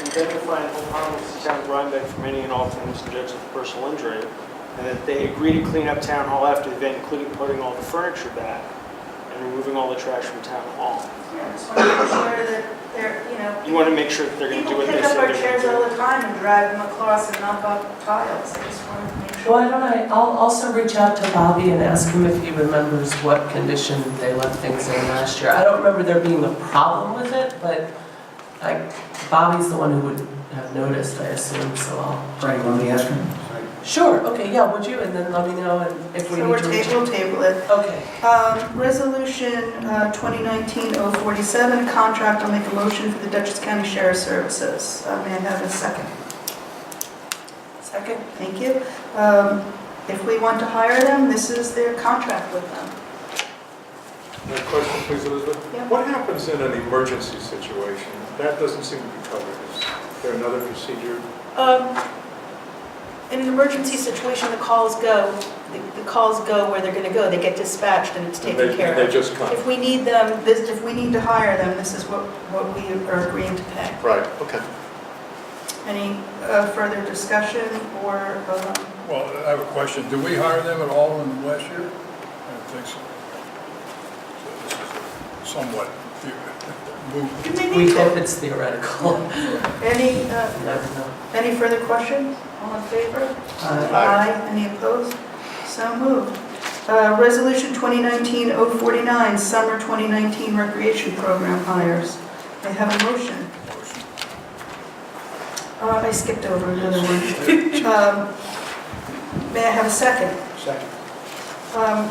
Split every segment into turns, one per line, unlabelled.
identifying and harmless the town of Rhinebeck from any and all forms of death of personal injury, and that they agree to clean up town hall after the event, including putting all the furniture back and removing all the trash from town hall.
Yeah, just want to make sure that they're, you know,
You want to make sure that they're going to do
people
what they
pick up
said
our
they're
chairs all
going to do.
the time and drag them across and knock off tiles. I just want to make sure.
Why don't I, I'll also reach out to Bobby and ask him if he remembers what condition they left things in last year. I don't remember there being a problem with it, but like Bobby's the one who would have noticed, I assume, so I'll.
Right, let me ask him.
Sure, okay, yeah, would you, and then let me know and if we
So
need
we're
to reach.
table, table it.
Okay,
Um, Resolution uh, 2019-047, contract, I'll make a motion for the Dutchess County Sheriff Services. Uh, May I have a second? Second. Thank you. Um, If we want to hire them, this is their contract with them.
My question, please, Elizabeth.
Yeah.
What happens in an emergency situation? That doesn't seem to be covered. Is there another procedure?
Um, In an emergency situation, the calls go, the- the calls go where they're going to go. They get dispatched and it's
And
taken
they-
care
and They
of.
just come?
If we need them,
This, if we need to hire them, this is what, what we are agreeing to pay.
Right, okay.
Any uh, further discussion or, um,
Well, I have a question. Do we hire them at all in last year? I don't think so. So this is Somewhat the- moot.
we hope it's theoretical.
any, uh,
Never know.
any further questions? All in favor?
Uh,
Aye.
Any opposed? So moved. Uh, Resolution 2019-049, Summer 2019 Recreation Program Hires. I have a motion. Uh, I skipped over another one. Um, May I have a second?
Second.
Um,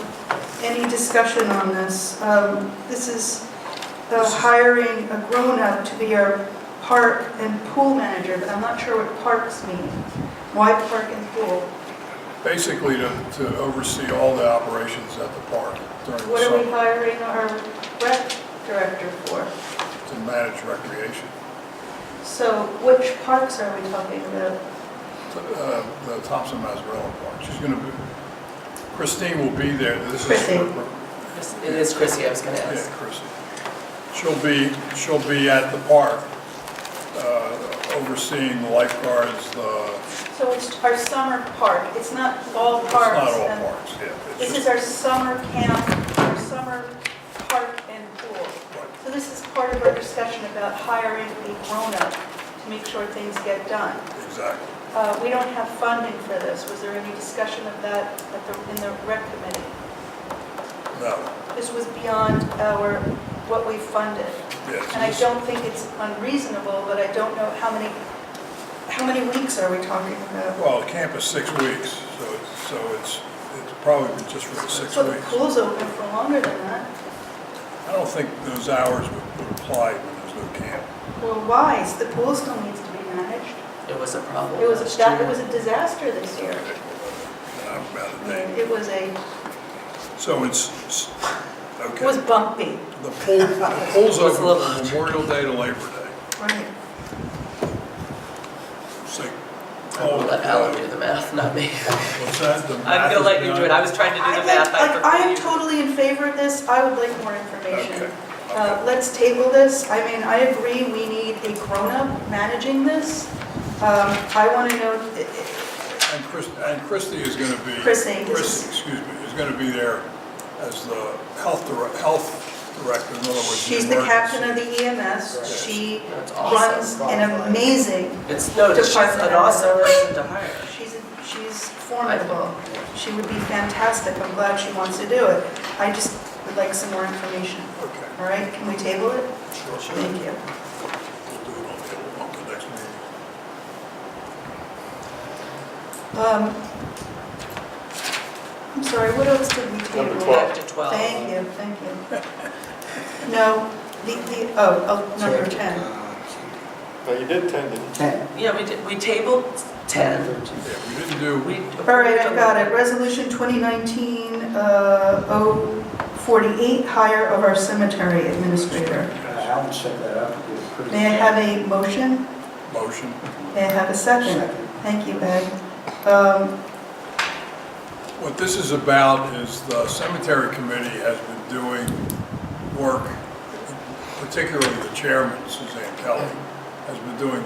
Any discussion on this? Um, This is the hiring a grown-up to be our park and pool manager, but I'm not sure what parks mean. Why park and pool?
Basically, to to oversee all the operations at the park during the
What are we
summer
hiring our rec director for?
to manage recreation.
So which parks are we talking about?
Uh, The Thompson Mazzarella Park, she's going to be, Christine will be there. This is her-
Christine.
Chris- It is Chrissy, I was gonna
Yeah,
ask.
Chrissy. She'll be, she'll be at the park uh, overseeing the lifeguards, the
So it's our summer park, it's not all
It's
parks.
not all
and-
parks, yeah. It's
This is
just-
our summer camp, our summer park and pool. So this is part of our discussion about hiring a grown-up to make sure things get done.
Exactly.
Uh, We don't have funding for this. Was there any discussion of that at the- in the rec committee?
No,
This was beyond our, what we funded.
yes.
And I don't think it's unreasonable, but I don't know how many, how many weeks are we talking about?
Well, camp is six weeks, so it's, so it's, it's probably been just for the six
So the
weeks.
pool's open for longer than that.
I don't think those hours would would apply when there's no camp.
Well, why? The pool still needs to be managed.
It was a problem
It was,
last
a that- it
year.
was a disaster this year.
And I'm about
I
to
mean,
think.
It was a,
So it's, it's-
it
okay.
was bumpy.
The pool, the pool's
It was a
open
little-
from Memorial Day to Labor Day.
right.
So,
I
Oh,
will let Alan do the math, not me.
what's that? The
I'm gonna let you do it, I was trying to do the
I'd
math.
like-
I
like, I am
forgot you.
totally in favor of this, I would like more
Okay.
information. Uh, Let's table this, I mean, I agree, we need a grown-up managing this. Um, I want to know, i- i-
And Chris, and Christie is gonna be.
Christie.
Christie, excuse me, is gonna be there as the health direct, health director, in other words.
she's the captain of the EMS, she
That's
runs
awesome.
an amazing,
It's, no, she's
Department.
an awesome person to hire.
she's, she's formidable. She would be fantastic, I'm glad she wants to do it. I just would like some more information,
Okay.
all right? Can we table it?
Sure, sure. We'll do
Thank you.
it on the, on the next meeting.
Um, I'm sorry, what else did we table?
Number 12.
Back to 12.
Thank you, thank you. No, the, the, oh, oh, number 10.
Now, you did tend to,
Ten.
Yeah, we did, we tabled 10.
Thirteen.
Yeah, we didn't do,
We
All right, I've got it. Resolution 2019-048, hire of our cemetery administrator.
Uh, Alan set that up. He was pretty-
May I have a motion?
motion,
May I have a second?
Second.
Thank you, Ed. Um,
What this is about is the cemetery committee has been doing work, particularly the chairman, Suzanne Kelly, has been doing